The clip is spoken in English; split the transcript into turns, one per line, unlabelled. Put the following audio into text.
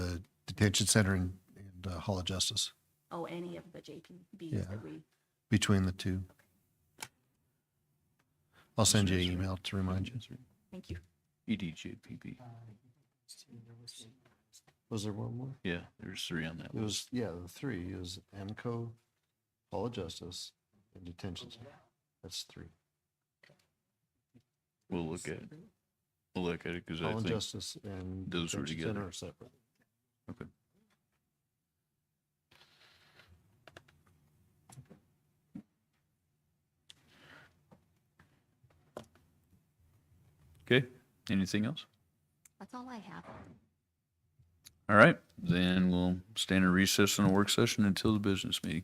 detention center and, and uh, Hall of Justice
Oh, any of the JPBs
Yeah.
that we,
between the two. I'll send you an email to remind you.
thank you.
E EDJPB.
Was there one more?
Yeah, there's three on that
It
list.
was, yeah, the three It was AMCO, Hall of Justice, and detention center. That's three.
We'll look at, it. we'll look at it because I
Hall of
think,
Justice and
those were
detention
together.
center are separate.
okay. Okay, anything else?
That's all I have.
All right, then we'll stand in recess on a work session until the business meeting.